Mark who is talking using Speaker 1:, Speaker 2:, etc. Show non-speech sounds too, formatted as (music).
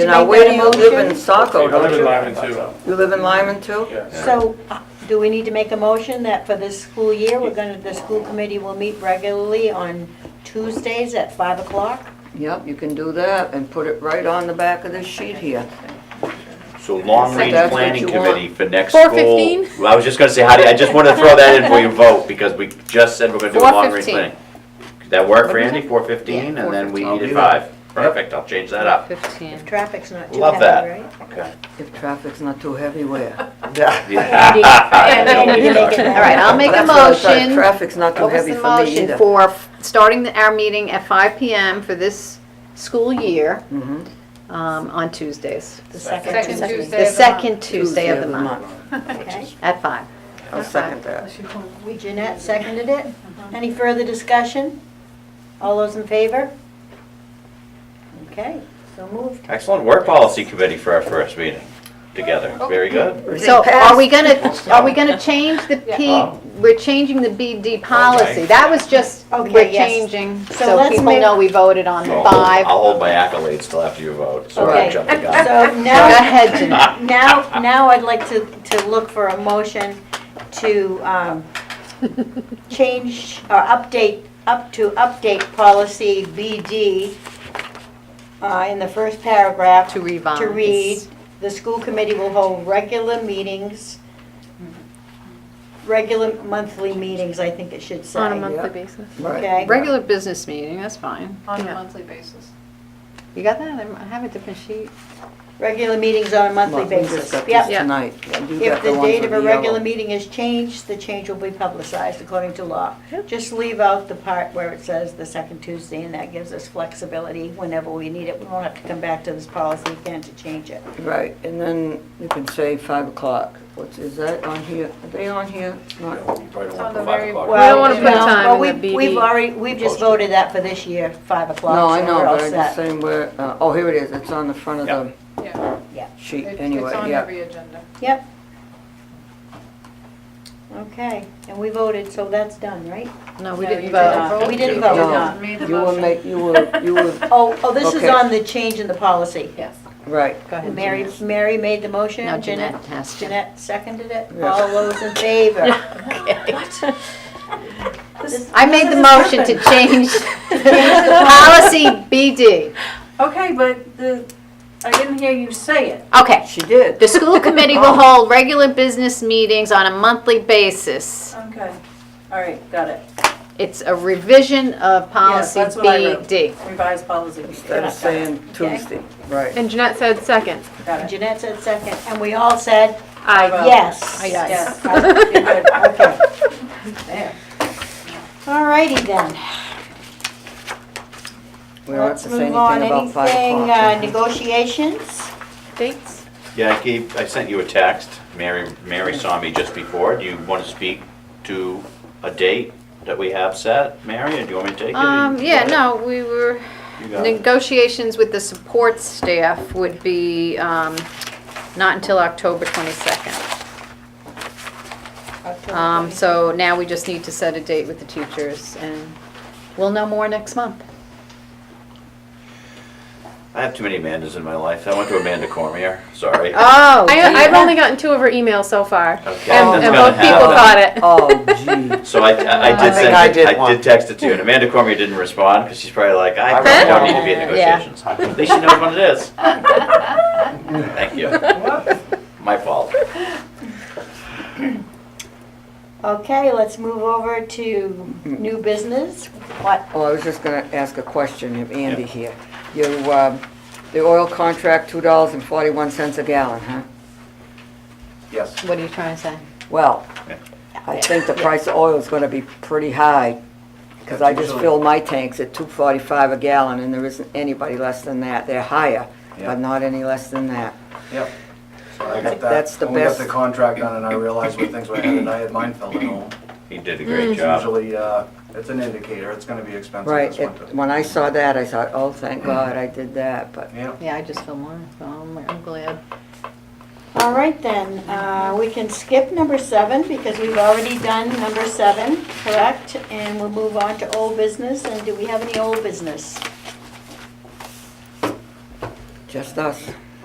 Speaker 1: Now,
Speaker 2: make
Speaker 1: where
Speaker 2: that
Speaker 1: do
Speaker 2: a
Speaker 1: you live in
Speaker 2: motion?
Speaker 1: Saco,
Speaker 3: I Oh, live
Speaker 1: don't
Speaker 3: in
Speaker 1: you?
Speaker 3: Lyman too.
Speaker 1: You live in Lyman too?
Speaker 3: Yeah.
Speaker 2: So, uh, do we need to make a motion that for this school year, we're gonna, the school committee will meet regularly on Tuesdays at 5 o'clock?
Speaker 1: Yep, you can do that and put it right on the back of this sheet here.
Speaker 4: So long-range
Speaker 1: That's what
Speaker 4: planning
Speaker 1: you
Speaker 4: committee for next school.
Speaker 5: 4:15?
Speaker 4: Well, I was just gonna say, how do, you- I just wanted to throw that in for your vote, because we just said we're gonna do a long-range
Speaker 5: 4:15.
Speaker 4: planning. Could that work for Andy, four fifteen, and then we
Speaker 3: I'll
Speaker 4: needed
Speaker 3: be there.
Speaker 4: five? Perfect, I'll change that up.
Speaker 5: 15.
Speaker 2: Traffic's not too
Speaker 4: Love that.
Speaker 2: heavy, right?
Speaker 4: Okay.
Speaker 1: If traffic's not too heavy, where?
Speaker 4: (laughs)
Speaker 2: Andy, Andy, you make it
Speaker 5: All right, I'll make a
Speaker 1: That's what I thought,
Speaker 5: motion.
Speaker 1: Traffic's not too
Speaker 5: What was
Speaker 1: heavy
Speaker 5: the
Speaker 1: for me
Speaker 5: motion
Speaker 1: either.
Speaker 5: for f- starting the- our meeting at 5 PM for this school year
Speaker 1: Mhm.
Speaker 5: um, on Tuesdays?
Speaker 2: The second
Speaker 6: Second
Speaker 2: Tuesday.
Speaker 6: Tuesday.
Speaker 5: The
Speaker 6: of the
Speaker 5: second Tuesday of the month,
Speaker 2: Okay.
Speaker 5: at 5.
Speaker 1: I'll second that.
Speaker 2: We, Jeanette seconded it. Any further discussion? All those in favor? Okay, so
Speaker 5: (laughs)
Speaker 2: moved.
Speaker 4: Excellent work, policy committee, for our first meeting together. Very good.
Speaker 5: So are
Speaker 1: (laughs)
Speaker 5: we gonna,
Speaker 4: passed.
Speaker 5: are we gonna change the P,
Speaker 4: Oh.
Speaker 5: we're changing the BD policy?
Speaker 4: Okay.
Speaker 5: That was just,
Speaker 2: Okay,
Speaker 5: we're
Speaker 2: yes.
Speaker 5: changing,
Speaker 2: So
Speaker 5: so
Speaker 2: let's
Speaker 5: people
Speaker 2: make-
Speaker 5: know we voted on the
Speaker 4: So I'll hold-
Speaker 5: five.
Speaker 4: I'll hold my accolades till after you vote, so I
Speaker 2: Okay.
Speaker 4: jump the gun.
Speaker 2: (laughs) So
Speaker 5: Go
Speaker 2: now.
Speaker 4: (laughs)
Speaker 5: ahead, Jeanette.
Speaker 2: Now, now I'd like to, to look for a motion to um, change or update, up to update policy BD uh, in the first paragraph.
Speaker 5: To revise.
Speaker 2: To read, the school committee will hold regular meetings, regular monthly meetings, I think it should say.
Speaker 5: On a monthly basis.
Speaker 1: Right.
Speaker 2: Okay,
Speaker 5: Regular business meeting, that's fine.
Speaker 6: On a
Speaker 5: Yeah.
Speaker 6: monthly basis.
Speaker 5: You got that? I have a different sheet.
Speaker 2: regular meetings on a monthly
Speaker 1: Well, we just
Speaker 2: basis.
Speaker 1: got these
Speaker 2: Yep.
Speaker 5: Yeah.
Speaker 1: Tonight. You
Speaker 2: If
Speaker 1: got
Speaker 2: the
Speaker 1: ones
Speaker 2: date
Speaker 1: with
Speaker 2: of a
Speaker 1: the
Speaker 2: regular
Speaker 1: yellow.
Speaker 2: meeting is changed, the change will be publicized according to law. Just leave out the part where it says the second Tuesday, and that gives us flexibility whenever we need it. We won't have to come back to this policy again to change it.
Speaker 1: Right, and then you can say five o'clock. What's, is that on here? Are they on here? Not-
Speaker 4: You probably don't want
Speaker 6: on
Speaker 4: to
Speaker 6: the
Speaker 4: put five
Speaker 6: very-
Speaker 4: o'clock.
Speaker 5: We don't wanna
Speaker 2: Well,
Speaker 5: put
Speaker 2: no,
Speaker 5: time
Speaker 2: but
Speaker 5: in
Speaker 2: we-
Speaker 5: the BD.
Speaker 2: We've already, we've just
Speaker 4: Posted.
Speaker 2: voted that for this year, five
Speaker 1: No,
Speaker 2: o'clock,
Speaker 1: I
Speaker 2: so
Speaker 1: know,
Speaker 2: we're all
Speaker 1: but I'm just
Speaker 2: set.
Speaker 1: saying where, uh, oh, here it is. It's on the front of the
Speaker 6: Yeah.
Speaker 1: sheet
Speaker 6: It-
Speaker 1: anyway,
Speaker 6: It's on
Speaker 1: yeah.
Speaker 6: every agenda.
Speaker 2: Yep. Okay, and we voted, so that's done, right?
Speaker 5: No, Oh, we
Speaker 6: No,
Speaker 5: didn't
Speaker 6: you
Speaker 5: vote.
Speaker 2: We didn't
Speaker 4: No.
Speaker 2: vote,
Speaker 1: No,
Speaker 2: no.
Speaker 6: Made the
Speaker 1: You will
Speaker 6: motion.
Speaker 1: make, you will, you
Speaker 6: (laughs)
Speaker 1: will,
Speaker 2: Oh, oh, this is
Speaker 1: Okay.
Speaker 2: on the change in the policy.
Speaker 6: Yes.
Speaker 1: right.
Speaker 5: Go ahead,
Speaker 2: Mary,
Speaker 5: Jeanette.
Speaker 2: Mary made the motion,
Speaker 5: No,
Speaker 2: Jeanette,
Speaker 5: Jeanette has to.
Speaker 2: Jeanette seconded it,
Speaker 1: Yeah.
Speaker 2: all those in
Speaker 5: (laughs)
Speaker 2: favor?
Speaker 5: I made the motion to change policy BD.
Speaker 6: Okay, but the, I didn't hear you say it.
Speaker 5: Okay.
Speaker 1: She did.
Speaker 5: The school committee will hold regular business meetings on a monthly basis.
Speaker 6: Okay, all right, got it.
Speaker 5: It's a revision of policy
Speaker 6: that's what I wrote.
Speaker 5: BD.
Speaker 6: Revised
Speaker 1: (laughs)
Speaker 6: policy.
Speaker 1: Instead of saying
Speaker 2: Okay.
Speaker 1: Tuesday, right.
Speaker 7: And Jeanette said second.
Speaker 6: Got it.
Speaker 2: Uh, Jeanette said second, and we all said
Speaker 6: Well,
Speaker 2: yes.
Speaker 5: I- Yes.
Speaker 6: Yes.
Speaker 5: (laughs)
Speaker 6: You're good. Okay. There.
Speaker 2: All righty then,
Speaker 1: We don't have
Speaker 2: let's
Speaker 1: to say anything
Speaker 2: move on,
Speaker 1: about five
Speaker 2: anything,
Speaker 1: o'clock. Mm-hmm.
Speaker 2: uh, negotiations?
Speaker 7: Dates?
Speaker 4: Yeah, I gave, I sent you a text. Mary, Mary saw me just before. Do you want to speak to a date that we have set, Mary, or do you want me to take it?
Speaker 5: Um, yeah, no, we were,
Speaker 4: You got it.
Speaker 5: negotiations with the support staff would be, um, not until October 22nd.
Speaker 2: October
Speaker 5: Um,
Speaker 2: 20th.
Speaker 5: so now we just need to set a date with the teachers and we'll know more next month.
Speaker 4: I have too many Amandas in my life. I went to Amanda Cormier, sorry.
Speaker 5: Oh.
Speaker 7: I, I've only gotten two of her emails so far.
Speaker 4: Okay,
Speaker 7: And, and
Speaker 4: that's Oh, gonna
Speaker 7: both people
Speaker 4: happen.
Speaker 7: caught it.
Speaker 1: Oh,
Speaker 5: (laughs)
Speaker 1: gee.
Speaker 4: So I, I I
Speaker 5: I
Speaker 4: did
Speaker 5: think
Speaker 4: send,
Speaker 3: I
Speaker 4: it-
Speaker 3: did
Speaker 4: I
Speaker 3: one.
Speaker 4: did text it to you, and Amanda Cormier didn't respond, because she's probably like, I
Speaker 3: Huh?
Speaker 4: probably don't need to be in
Speaker 5: Yeah.
Speaker 4: negotiations. At least she knows what it
Speaker 7: (laughs)
Speaker 4: is. Thank you. My fault.
Speaker 2: Okay, let's move over to new business, what,
Speaker 1: Oh, I was just gonna ask a question of Andy here. You, um, the oil contract, two dollars and forty-one cents a gallon, huh?
Speaker 3: Yes.
Speaker 5: What are you trying to say?
Speaker 1: Well, I think the price of oil is gonna be pretty high, because I just filled my tanks at two forty-five a gallon, and there isn't anybody less than that. They're higher,
Speaker 3: Yeah.
Speaker 1: but not any less than that.
Speaker 8: Yep. So I got that.
Speaker 1: That's the
Speaker 8: When we got
Speaker 1: best.
Speaker 8: the contract done and I realized where things were headed, I had mine filled at home.
Speaker 4: He did a
Speaker 7: Hmm.
Speaker 4: great job.
Speaker 8: Usually, uh, it's an indicator, it's gonna be expensive
Speaker 1: Right,
Speaker 8: this
Speaker 1: it-
Speaker 8: winter.
Speaker 1: when I saw that, I thought, oh, thank God I did that, but
Speaker 8: Yeah,
Speaker 5: Yeah, I just feel more, I'm glad.
Speaker 2: all right then, uh, we can skip number seven, because we've already done number seven, correct? And we'll move on to old business, and do we have any old business?
Speaker 1: just us.